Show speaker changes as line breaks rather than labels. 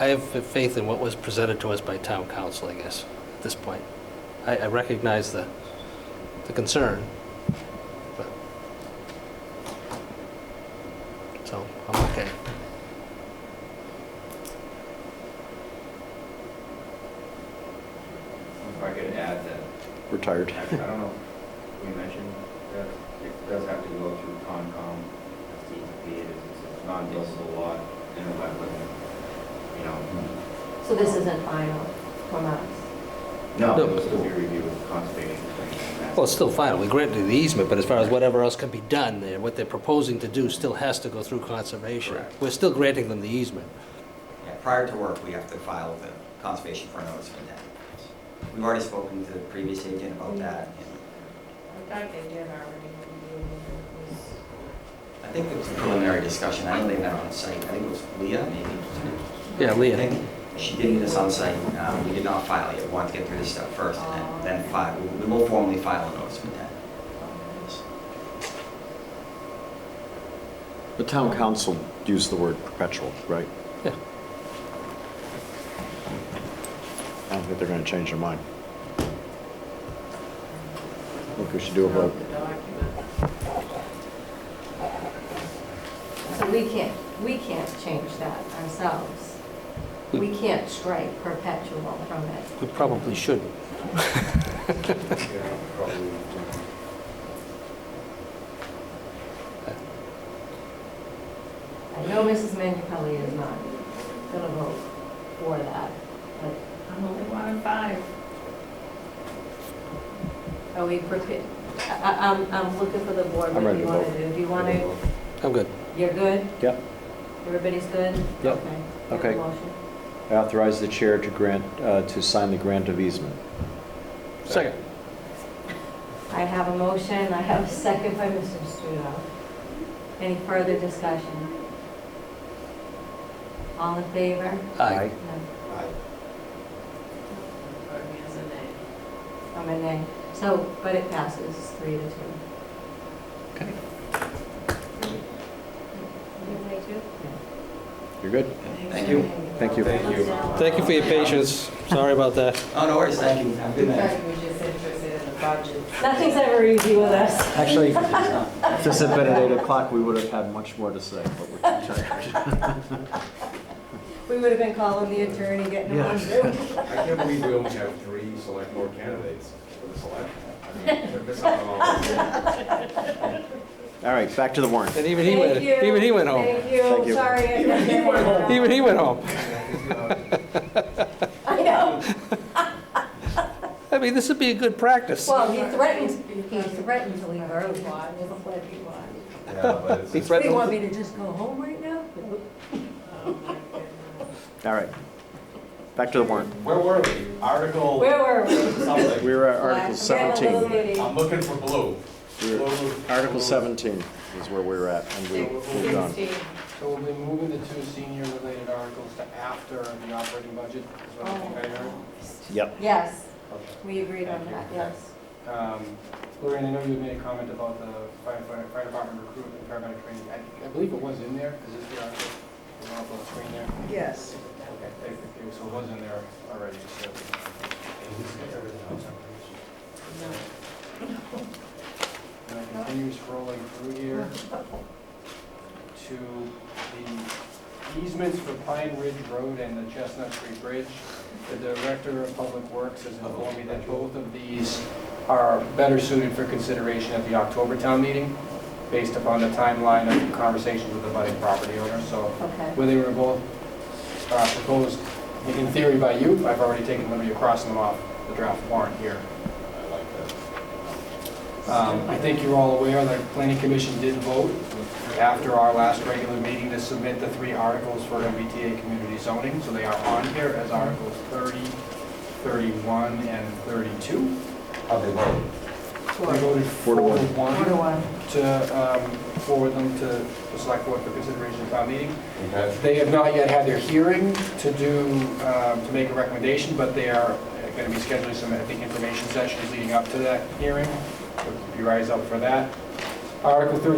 I have faith in what was presented to us by town council, I guess, at this point. I, I recognize the, the concern, but, so, I'm okay.
If I could add that,
Retired.
I I don't know, if we mentioned that it does have to go through Concom, DEP, it is- it's a non-buildable lot in a wetland, you know.
So this isn't final from us?
No,
No.
it was still be reviewed with conservation. and that.
Well, it's still final, we granted the easement, but as far as whatever else can be done there, what they're proposing to do still has to go through conservation.
Correct.
We're still granting them the easement.
Yeah, prior to work, we have to file with the conservation for notice for that. We've already spoken to the previous agent about that. and
I thought they did already. It
I think it was a preliminary discussion. I know they met on site. I think it was Leah, maybe.
Yeah, Leah.
I think She did meet us on site. Um, We did not file it yet. We wanted to get through this stuff first and then, then file. We- We will formally file a notice for that.
um,
The town council used the word perpetual, right?
Yeah.
I don't think they're going to change their mind. Think we should do a
was
vote.
throughout the document.
So we can't, we can't change that ourselves. We can't strike perpetual from it.
We probably shouldn't.
Yeah, probably.
I know Mrs. Minipelli is not gonna vote for that, but
I'm only one of five.
are we prepared? I, I- I'm, I'm looking for the board,
I'm
what do
ready
you
to
wanna
vote.
do? Do you wanna,
I'm good.
you're good?
Yep.
Everybody's good?
Yep.
Okay. Do you have a
Okay.
motion?
I authorize the chair to grant, uh, to sign the grant of easement.
Second.
I have a motion, I have a second by Mr. Studo. Any further discussion? All in favor?
Aye.
No.
Voted me as a nay.
I'm a nay. So, but it passes three to two.
Okay.
You nay too?
You're good?
Thank you.
Thank you.
Thank you.
Thank you for your patience, sorry about that.
Oh, no worries. Thank you. Have a good night.
Sorry, we're just interested in the budget.
Nothing's ever easy with us.
Actually, if this had been at 8 o'clock, we would have had much more to say, but we're tired.
We would have been calling the attorney, getting him on Zoom.
I can't believe we only have three select board candidates for the selection. I mean, they're missing out on all of them.
All right, back to the warrant.
And even he went,
Thank you.
even he went home.
Thank
Thank
you,
you.
sorry. I-
Even he went home.
Even he went home.
I know.
I mean, this would be a good practice.
Well, he threatened, he threatened to leave early. Doesn't let me watch.
Yeah, but it's
He
just-
What, do you
threatened,
want me to just go home right now? Oh,
All right. Back to the warrant.
Where were we? Article
Where were we?
something.
We were at Article
We had a
17.
little meeting.
I'm looking for blue.
We were- Article 17 is where we were at, and we moved on.
Sixteen.
So we'll be moving the two senior-related articles to after the operating budget, is what I think I heard.
Yep.
Yes,
Okay.
we agreed on that, yes.
Um, Lorraine, I know you made a comment about the firefighter, fire department recruitment, paramedic training. I, I believe it was in there, is this the article? The one up on the screen there?
Yes.
Okay, thank you, so it was in there already, so. And I continue scrolling through here to the easements for Pine Ridge Road and the Chestnut Tree Bridge. The Director of Public Works has informed me that both of these are better suited for consideration at the October town meeting, based upon the timeline of conversations with the budding property owner, so
Okay.
where they were both uh, proposed, in theory by you, I've already taken liberty of crossing them off the draft warrant here.
I like that.
Um, I think you're all aware that the planning commission did vote after our last regular meeting to submit the three articles for MBTA community zoning, so they are on here as articles 30, 31, and 32.
How they vote.
We voted
Four
four
to
to
one.
Four to
one
one.
to um, forward them to the select board for consideration at town meeting.
Okay.
They have not yet had their hearing to do, um, to make a recommendation, but they are going to be scheduling some, I think, information sessions leading up to that hearing. Keep your eyes out for that. Article 30